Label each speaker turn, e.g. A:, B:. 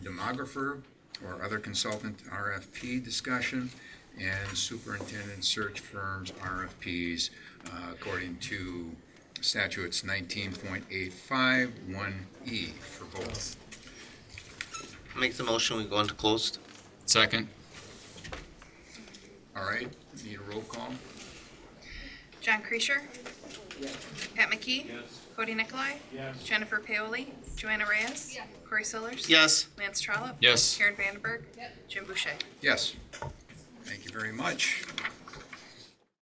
A: demographer or other consultant RFP discussion, and superintendent search firms RFPs uh, according to statutes 19.851 E for both.
B: Make the motion, we go into closed.
C: Second.
A: All right, need a roll call?
D: John Creasure. Pat McKee. Cody Nicolai. Jennifer Paoli. Joanna Reyes. Corey Sellers.
B: Yes.
D: Lance Trollope.
C: Yes.
D: Karen Vandenberg. Jim Boucher.
A: Yes. Thank you very much.